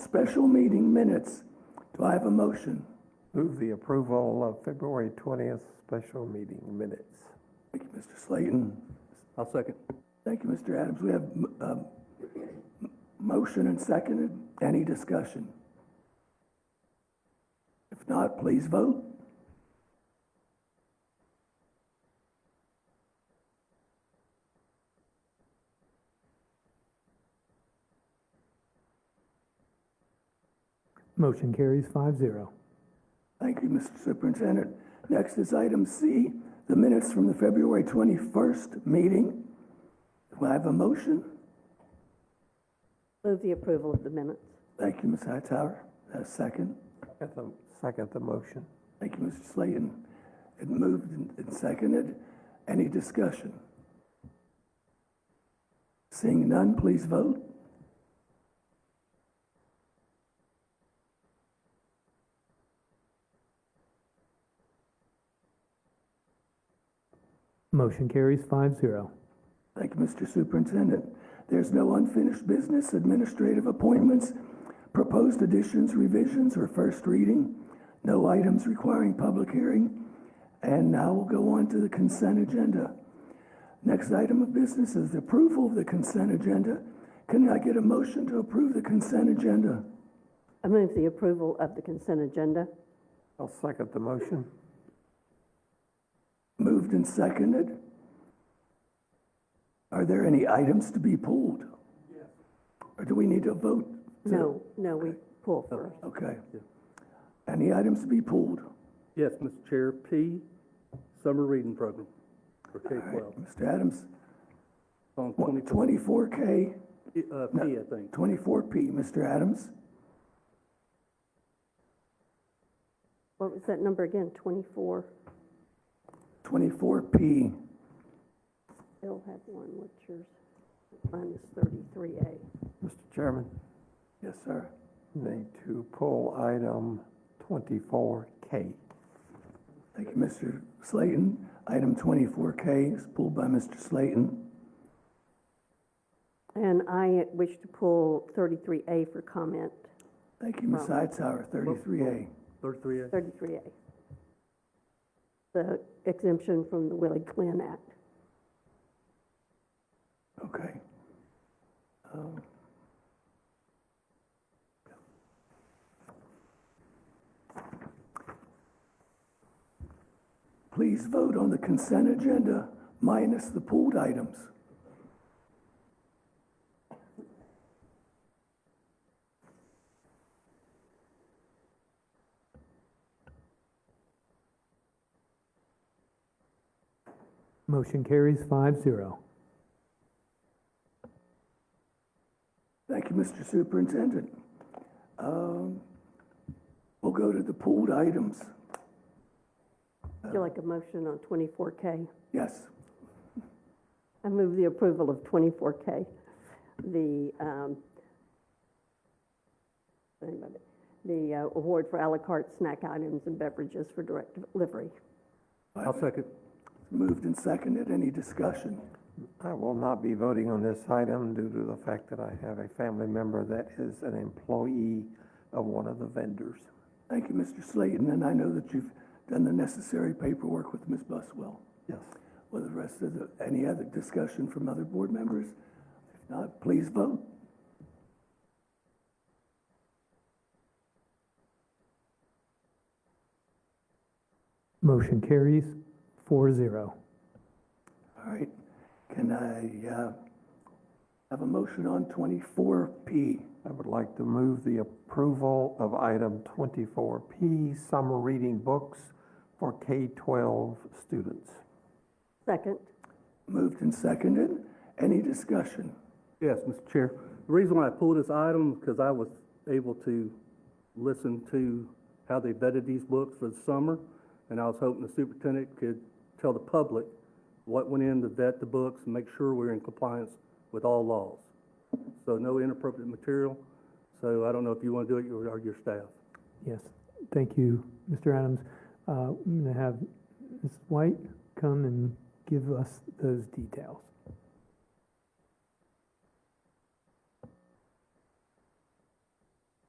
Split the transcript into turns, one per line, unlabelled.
special meeting minutes. Do I have a motion?
Move the approval of February 20th special meeting minutes.
Thank you, Mr. Slayton.
I'll second.
Thank you, Mr. Adams. We have m- um, m- motion and seconded. Any discussion? If not, please vote.
Motion carries five zero.
Thank you, Mr. Superintendent. Next is item C, the minutes from the February 21st meeting. Do I have a motion?
Move the approval of the minutes.
Thank you, Ms. Hightower. A second.
At the- Second the motion.
Thank you, Mr. Slayton. It moved and and seconded. Any discussion? Seeing none, please vote.
Motion carries five zero.
Thank you, Mr. Superintendent. There's no unfinished business, administrative appointments, proposed additions, revisions, or first reading, no items requiring public hearing, and now we'll go on to the consent agenda. Next item of business is the approval of the consent agenda. Can I get a motion to approve the consent agenda?
I Uh, move the approval of the consent agenda.
I'll second the motion.
Moved and seconded. Are there any items to be pulled? Or do we need to vote? to-
No, no, we pull first.
Okay. Any items to be pulled?
Yes, Mr. Chair, P, summer reading program for
All right,
K-12.
Mr. Adams,
It's on 24,
twenty-four K,
uh, P, I think.
twenty-four P, Mr. Adams.
What was that number again? 24?
Twenty-four P,
Bill had one, what's yours? Mine is 33A.
Mr. Chairman,
yes, sir.
need to pull item 24K.
Thank you, Mr. Slayton. Item twenty-four K is pulled by Mr. Slayton.
And I wish to pull 33A for comment,
Thank you, Ms. Hightower, thirty-three A.
33A.
33A. The exemption from the Willie Glenn Act.
Okay. Um, Please vote on the consent agenda minus the pulled items.
Motion carries five zero.
Thank you, Mr. Superintendent. Um, We'll go to the pulled items.
Would you like a motion on 24K?
Yes,
I move the approval of 24K, the, um, wait a minute, the uh, award for à la carte snack items and beverages for direct delivery.
I'll second.
moved and seconded. Any discussion?
I will not be voting on this item due to the fact that I have a family member that is an employee of one of the vendors.
Thank you, Mr. Slayton, and I know that you've done the necessary paperwork with Ms. Buswell.
Yes.
With the rest of the, any other discussion from other board members? If not, please vote.
Motion carries four zero.
All right, can I uh, have a motion on 24P?
I would like to move the approval of item 24P, summer reading books for K-12 students.
Second,
Moved and seconded. Any discussion?
Yes, Mr. Chair. The reason why I pulled this item, because I was able to listen to how they vetted these books for the summer, and I was hoping the superintendent could tell the public what went in to vet the books and make sure we're in compliance with all laws. So no inappropriate material, so I don't know if you want to do it or or your staff.
Yes, thank you, Mr. Adams. Uh, I'm going to have Ms. White come and give us those details.